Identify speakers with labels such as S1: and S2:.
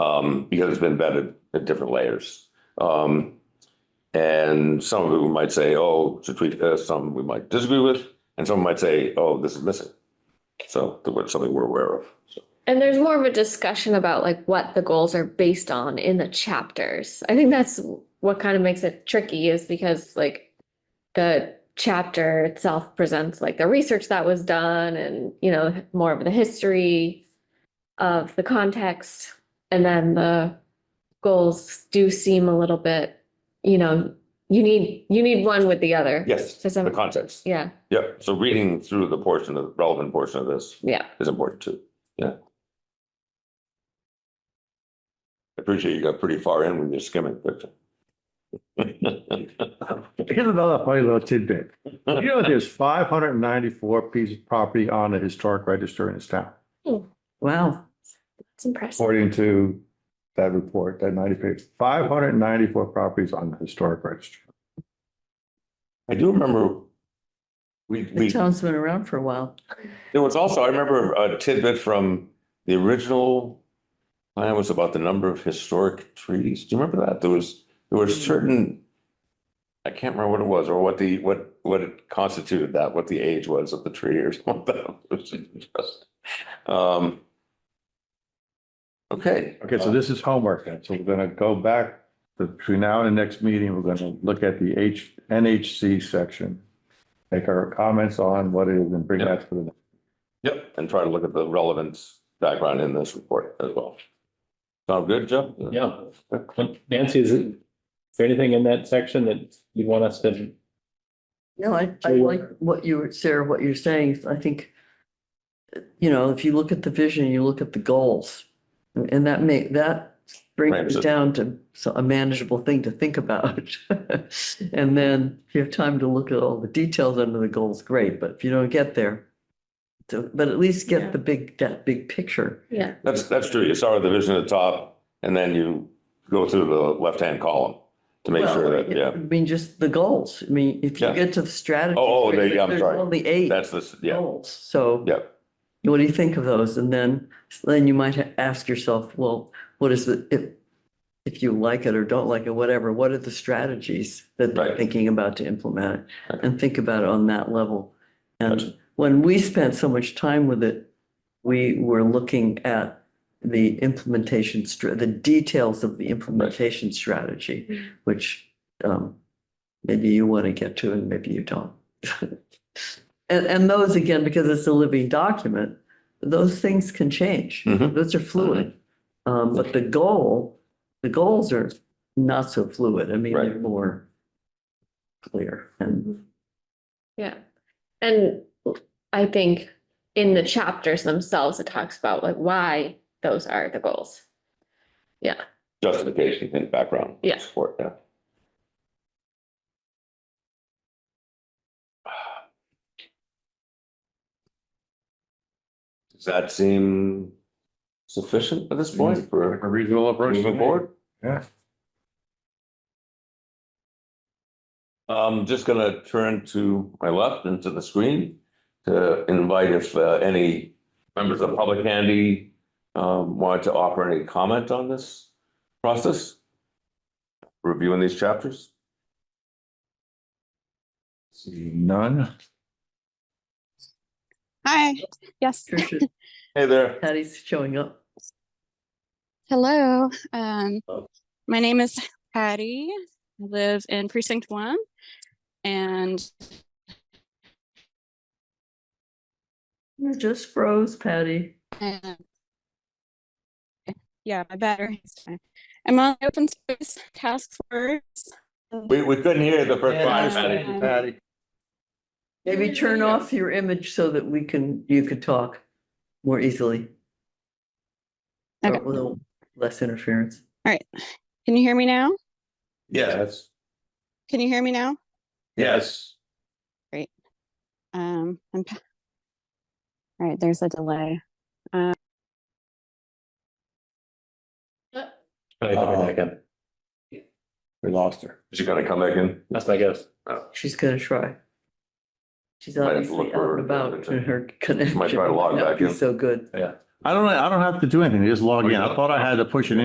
S1: um, because it's been vetted at different layers. Um, and some of it we might say, oh, to tweak this, some we might disagree with, and some might say, oh, this is missing. So that's something we're aware of. So,
S2: And there's more of a discussion about like what the goals are based on in the chapters. I think that's what kind of makes it tricky is because like the chapter itself presents like the research that was done and, you know, more of the history of the context. And then the goals do seem a little bit, you know, you need, you need one with the other.
S1: Yes,
S2: To some-
S1: the context.
S2: Yeah,
S1: Yeah, so reading through the portion of, relevant portion of this
S2: yeah.
S1: is important too. Yeah. I appreciate you got pretty far in with your skimming, Victor.
S3: Here's another funny little tidbit. You know, there's five hundred and ninety-four pieces of property on the historic register in this town,
S4: Wow,
S2: It's impressive.
S3: according to that report, that ninety page, five hundred and ninety-four properties on the historic register.
S1: I do remember we,
S4: the
S1: we
S4: town's been around for a while.
S1: There was also, I remember a tidbit from the original plan was about the number of historic trees. Do you remember that? There was, there were
S3: Mm-hmm.
S1: certain, I can't remember what it was or what the, what, what it constituted that, what the age was of the tree or something. It was interesting. Um, Okay. Uh,
S3: Okay, so this is homework then. So we're gonna go back to- between now and the next meeting, we're gonna look at the H, NHC section. Make our comments on what it is and bring that to the,
S1: Yep, and try to look at the relevance background in this report as well. Sound good, Jeff?
S5: Yeah. Nancy, is it- is there anything in that section that you'd want us to?
S4: No, I, I
S5: Sure.
S4: like what you, were- Sarah, what you're saying. I think, you know, if you look at the vision, you look at the goals. And and that may, that brings
S1: Ramps
S4: it
S1: it.
S4: down to so- a manageable thing to think about. And then if you have time to look at all the details under the goals, great, but if you don't get there, so, but at least
S2: Yeah.
S4: get the big, that big picture.
S2: Yeah.
S1: That's, that's true. You start with the vision at the top and then you go through the left-hand column to make sure
S4: Well,
S1: that, yeah,
S4: I mean, just the goals. I mean, if you
S1: Yeah.
S4: get to the strategy.
S1: Oh, oh, there- yeah, I'm
S4: there's
S1: sorry.
S4: Only eight.
S1: that's the, yeah,
S4: goals. So
S1: yeah.
S4: what do you think of those? And then, then you might ha- ask yourself, well, what is the, if, if you like it or don't like it, whatever, what are the strategies that they're
S1: Right.
S4: thinking about to implement it?
S1: Okay.
S4: And think about it on that level.
S1: Gotcha.
S4: And when we spent so much time with it, we were looking at the implementation, str- the details of the implementation
S2: Mhm.
S4: strategy, which um, maybe you want to get to and maybe you don't. And, and those again, because it's a living document, those things can change.
S1: Mhm.
S4: Those are fluid. Um, but the goal, the goals are not so fluid. I mean, they're
S1: Right.
S4: more clear and
S2: Yeah. And I think in the chapters themselves, it talks about like why those are the goals.
S1: Justification in background.
S2: Yeah.
S1: Support, yeah. Does that seem sufficient at this point for
S3: a reasonable approach.
S1: moving forward?
S3: Yeah.
S1: I'm just gonna turn to my left and to the screen to invite if uh, any members of the public handy um, wanted to offer any comment on this process, reviewing these chapters.
S3: See none.
S6: Hi, yes,
S4: Tricia,
S1: Hey there.
S4: Patty's showing up.
S6: hello. Um, my name is Patty. I live in precinct one and
S4: You just froze, Patty.
S6: and uh, yeah, my battery. is fine. I'm on the open space task force. Um,
S1: We, we couldn't hear you the first time,
S6: Patty.
S1: Patty.
S3: Patty.
S4: Maybe turn off your image so that we can, you could talk more easily. Or
S6: Okay.
S4: a little less interference.
S6: All right. Can you hear me now?
S1: Yes.
S6: Can you hear me now?
S1: Yes.
S6: Um, I'm pa- all right, there's a delay.
S1: Uh,
S3: We lost her.
S1: Is she gonna come back in?
S5: That's my guess.
S4: She's gonna try. She's
S1: Might have to look
S4: obviously out
S1: for-
S4: and about in her connection.
S1: Might try to log
S4: might not
S1: back
S4: be
S1: in.
S4: So good.
S3: I Oh, don't, I don't have to do anything. Just log in. I thought I had to push it in.